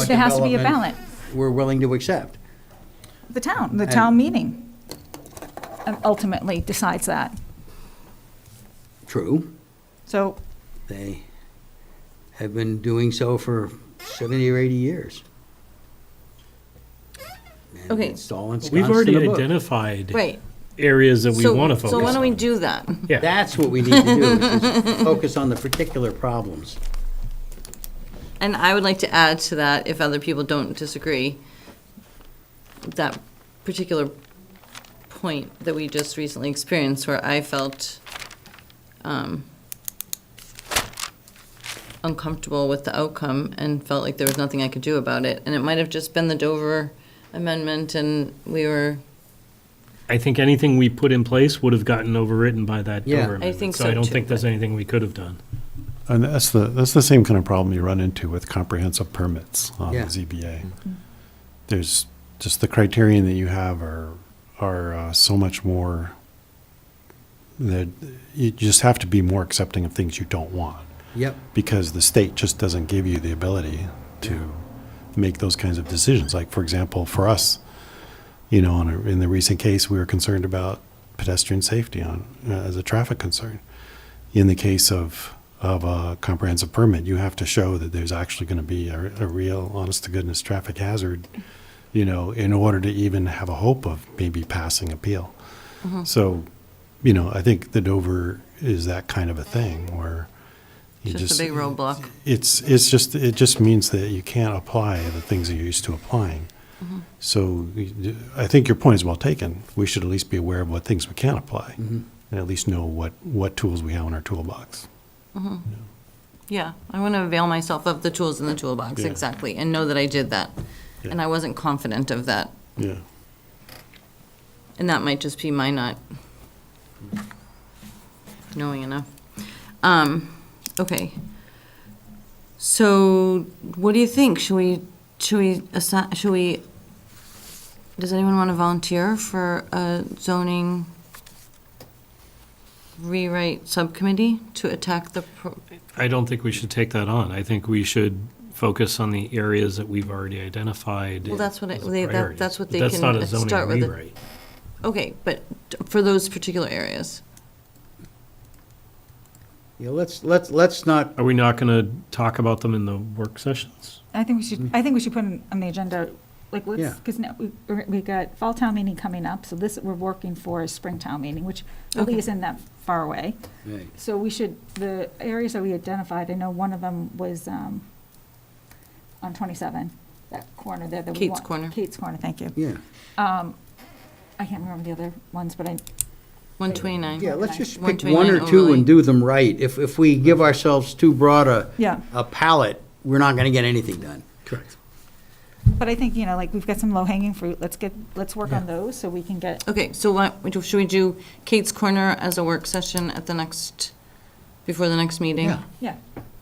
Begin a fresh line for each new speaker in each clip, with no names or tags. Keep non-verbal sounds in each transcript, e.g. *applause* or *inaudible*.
Yes, there has to be a
development
ballot.
We're willing to accept.
The town, the
And-
town meeting um, ultimately decides that.
True,
So
they have been doing so for 70 or 80 years. And
Okay.
It's all
We've
ensconced
already
in the book.
identified
Right.
areas that we
So-
want to focus on.
So why don't we do that?
Yeah,
That's *laughs* what we need to do, is just focus on the particular problems.
And I would like to add to that, if other people don't disagree, that particular point that we just recently experienced where I felt um, uncomfortable with the outcome and felt like there was nothing I could do about it. And it might have just been the Dover amendment and we were,
I think anything we put in place would have gotten overwritten by that
Yeah. I
Dover amendment.
think
I
so,
don't
too,
think there's anything we could have done.
And that's the, that's the same kind of problem you run into with comprehensive permits on the
Yeah.
ZBA. There's just the criterion that you have are, are uh, so much more, that you just have to be more accepting of things you don't want.
Yep,
because the state just doesn't give you the ability to make those kinds of decisions. Like, for example, for us, you know, in, a, in the recent case, we were concerned about pedestrian safety on uh, as a traffic concern. In the case of of a comprehensive permit, you have to show that there's actually going to be a, a real, honest to goodness traffic hazard, you know, in order to even have a hope of maybe passing appeal.
Mm-hmm.
So, you know, I think the Dover is that kind of a thing where you
just a big roadblock.
it's, it's just, it just means that you can't apply the things that you're used to applying. So you- I think your point is well taken. We should at least be aware of what things we can apply and at least know what, what tools we have in our toolbox.
Yeah, I want to avail myself of the tools in the toolbox,
Yeah.
exactly, and know that I did that. And I wasn't confident of that.
Yeah.
And that might just be my not knowing enough. Um, okay. So what do you think? Should we, should we, assi- should we, does anyone want to volunteer for a zoning rewrite subcommittee to attack the, pro-
I don't think we should take that on. I think we should focus on the areas that we've already identified.
Well, that's what I-
as the
they- that-
priorities.
that's what
But
they
that's
can
not a zoning
start with the-
rewrite.
okay, but for those particular areas?
yeah, let's, let's, let's not,
Are we not going to talk about them in the work sessions?
I think we should, I think we should put it on the agenda, like,
Yeah.
let's, because now, we, we got fall town meeting coming up, so this, we're working for is spring town meeting, which really
Okay.
isn't that far away.
hey,
So we should, the areas that we identified, I know one of them was, um, on twenty-seven, that corner there that we
Kate's
want-
Corner.
Kate's Corner, thank you.
yeah,
I can't remember the other ones, but I,
129?
yeah, let's just
One
pick one or
twenty-nine
two
overlay.
and do them right. If, if we give ourselves too broad a,
Yeah.
a palette, we're not gonna get anything done.
Correct.
but I think, you know, like, we've got some low-hanging fruit, let's get, let's work on those, so we can get
Okay, so what, should we do Kate's Corner as a work session at the next, before the next meeting?
Yeah.
Yeah,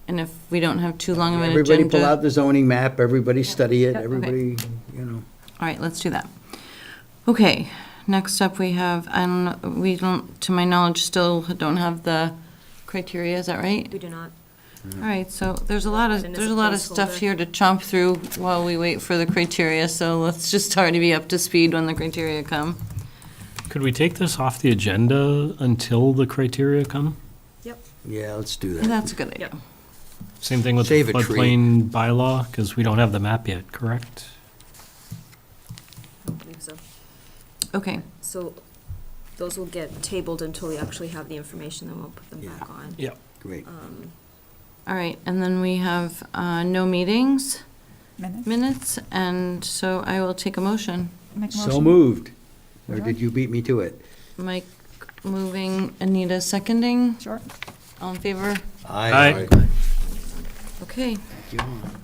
And if we don't have too long of an agenda?
Everybody pull out the zoning map, everybody study it,
Yeah, okay.
everybody, you know.
All right, let's do that. Okay, next up we have, I don't, know- we don't, to my knowledge, still don't have the criteria, is that right?
We do not.
Mm-hmm.
All right, so there's a lot of,
And it's
there's
a
a lot of stuff
placeholder.
here to chomp through while we wait for the criteria, so let's just try to be up to speed when the criteria come.
Could we take this off the agenda until the criteria come?
Yeah, let's do that.
That's a good idea.
Yep.
Same thing with the
Save a tree.
floodplain bylaw, because we don't have the map yet, correct?
I don't believe so.
Okay,
So those will get tabled until we actually have the information, then we'll put them back on.
Yep.
Great.
Uh,
all right, and then we have uh, no meetings.
minutes.
minutes, and so I will take a motion.
Make a
So
motion.
moved. Or did you beat me to it?
Mike moving, Anita seconding,
Sure.
all in favor?
Aye.
Okay.
Thank you.